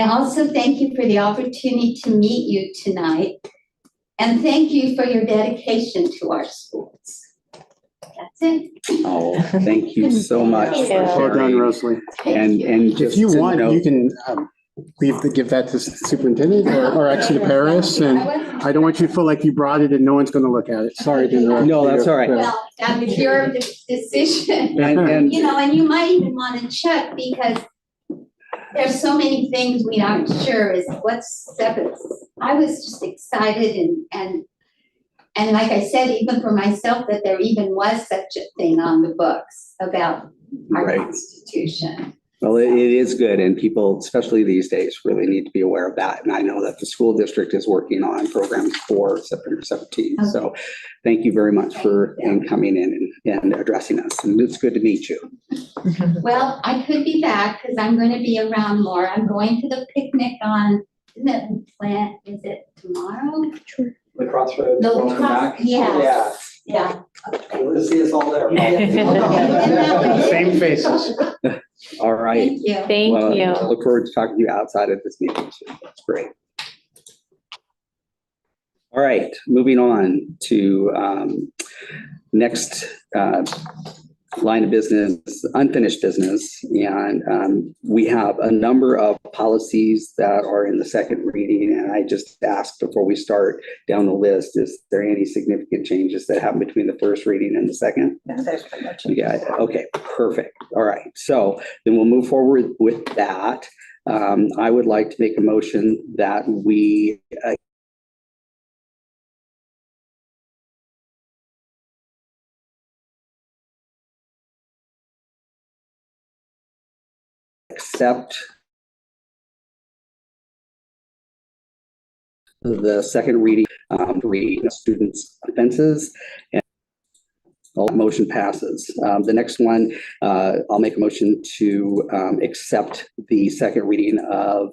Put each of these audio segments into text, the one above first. I also thank you for the opportunity to meet you tonight. And thank you for your dedication to our schools. That's it. Oh, thank you so much. for Thank you. Well done, sharing. Rosalie. Thank And, you. and just If you to want, note- you can um, leave, the- give that to the superintendent or or actually to Paris. And I don't want you to feel like you brought it and no one's going to look at it. Sorry to interrupt. No, that's all right. Well, that was your de- decision, And, and, you know, and you might even want to check because there's so many things we aren't sure is what's seven. I was just excited and, and, and like I said, even for myself, that there even was such a thing on the books about our Right. constitution. well, it it is good and people, especially these days, really need to be aware of that. And I know that the school district is working on programs for September seventeenth. So thank you very much for um, coming in and, and addressing us. And it's good to meet you. Well, I could be back because I'm going to be around more. I'm going to the picnic on, isn't it, plant, is it tomorrow? The crossroads. The welcome cross- back. yeah. Yeah, Yeah, you'll see us all there. Same faces. All right. Thank you. Well, Thank you. I Look forward to talking to you outside of this meeting. too. That's great. All right, moving on to um, next uh, line of business, unfinished business. And um, we have a number of policies that are in the second reading. And I just asked before we start down the list, is there any significant changes that happen between the first reading and the second? Yeah, okay, perfect. All right. So then we'll move forward with that. Um, I would like to make a motion that we uh, accept the second reading, um, reading of students' offenses. and all motion passes. Um, the next one uh, I'll make a motion to um, accept the second reading of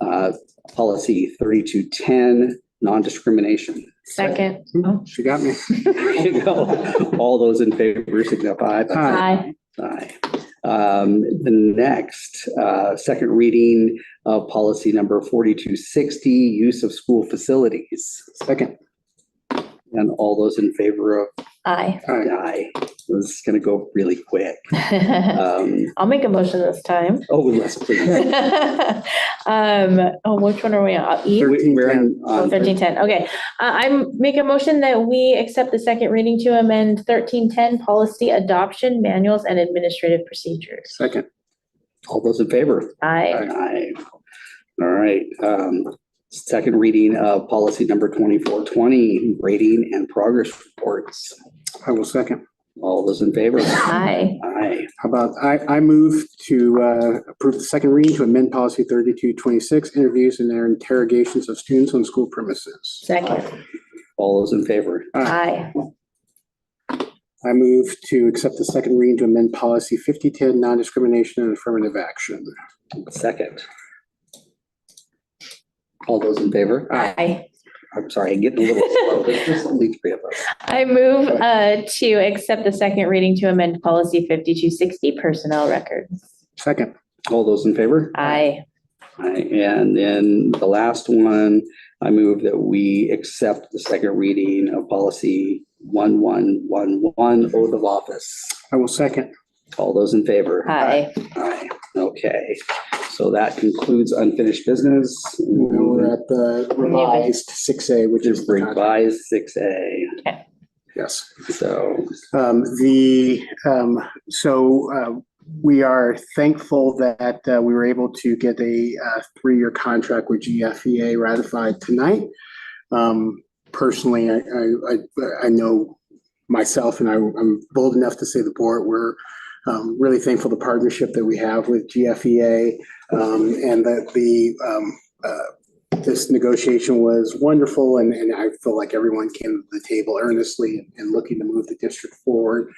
uh, policy 3210, non-discrimination. Second. She got me. All those in favor signify by Aye. aye. Um, The next, uh, second reading of policy number 4260, use of school facilities. Second. And all those in favor of Aye. Aye. aye. This is going to go really quick. Um, I'll make a motion this time. Oh, yes, please. Um, oh, which one are we on? E? We- We're on- Oh, on thirteen ten, okay. Uh, I, I'm make a motion that we accept the second reading to amend thirteen ten policy adoption manuals and administrative procedures. Second. All those in favor? Aye. Aye. All right, um, second reading of policy number twenty-four twenty, rating and progress reports. I will second. All those in favor? Aye. Aye. How about, I, I move to uh, approve the second reading to amend policy 3226, interviews and their interrogations of students on school premises. Second. All those in favor? Aye. I move to accept the second reading to amend policy 5010, non-discrimination and affirmative action. Second. All those in favor? Aye. I'm sorry, I'm getting a little slow. There's just only three of us. I move, uh, to accept the second reading to amend policy fifty-two sixty personnel records. Second. All those in favor? Aye. Aye. And then the last one, I move that we accept the second reading of policy one-one-one-one, oath of office. I will second. All those in favor? Aye. Aye. Okay, so that concludes unfinished business. Now we're at the revised 6A, which is. Just the contract. revised six A, Yes. so. Um, the, um, so, uh, we are thankful that, uh, we were able to get a, uh, three-year contract with GFEA ratified tonight. Um, personally, I, I, I, I know myself and I, I'm bold enough to say the board, we're, um, really thankful the partnership that we have with GFEA. Um, and that the, um, uh, this negotiation was wonderful and, and I feel like everyone came to the table earnestly and looking to move the district forward.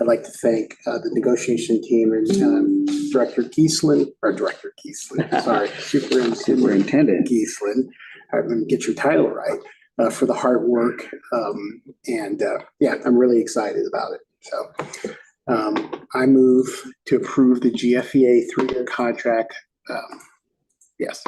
I'd like to thank, uh, the negotiation team and, um, Director Geeslin, or Director Geeslin, sorry, Superintendent Superintendent. Geeslin, I'm gonna get your title right, uh, for the hard work. Um, and, uh, yeah, I'm really excited about it. So, E um, I move to approve the GFEA three-year contract, um, Yes.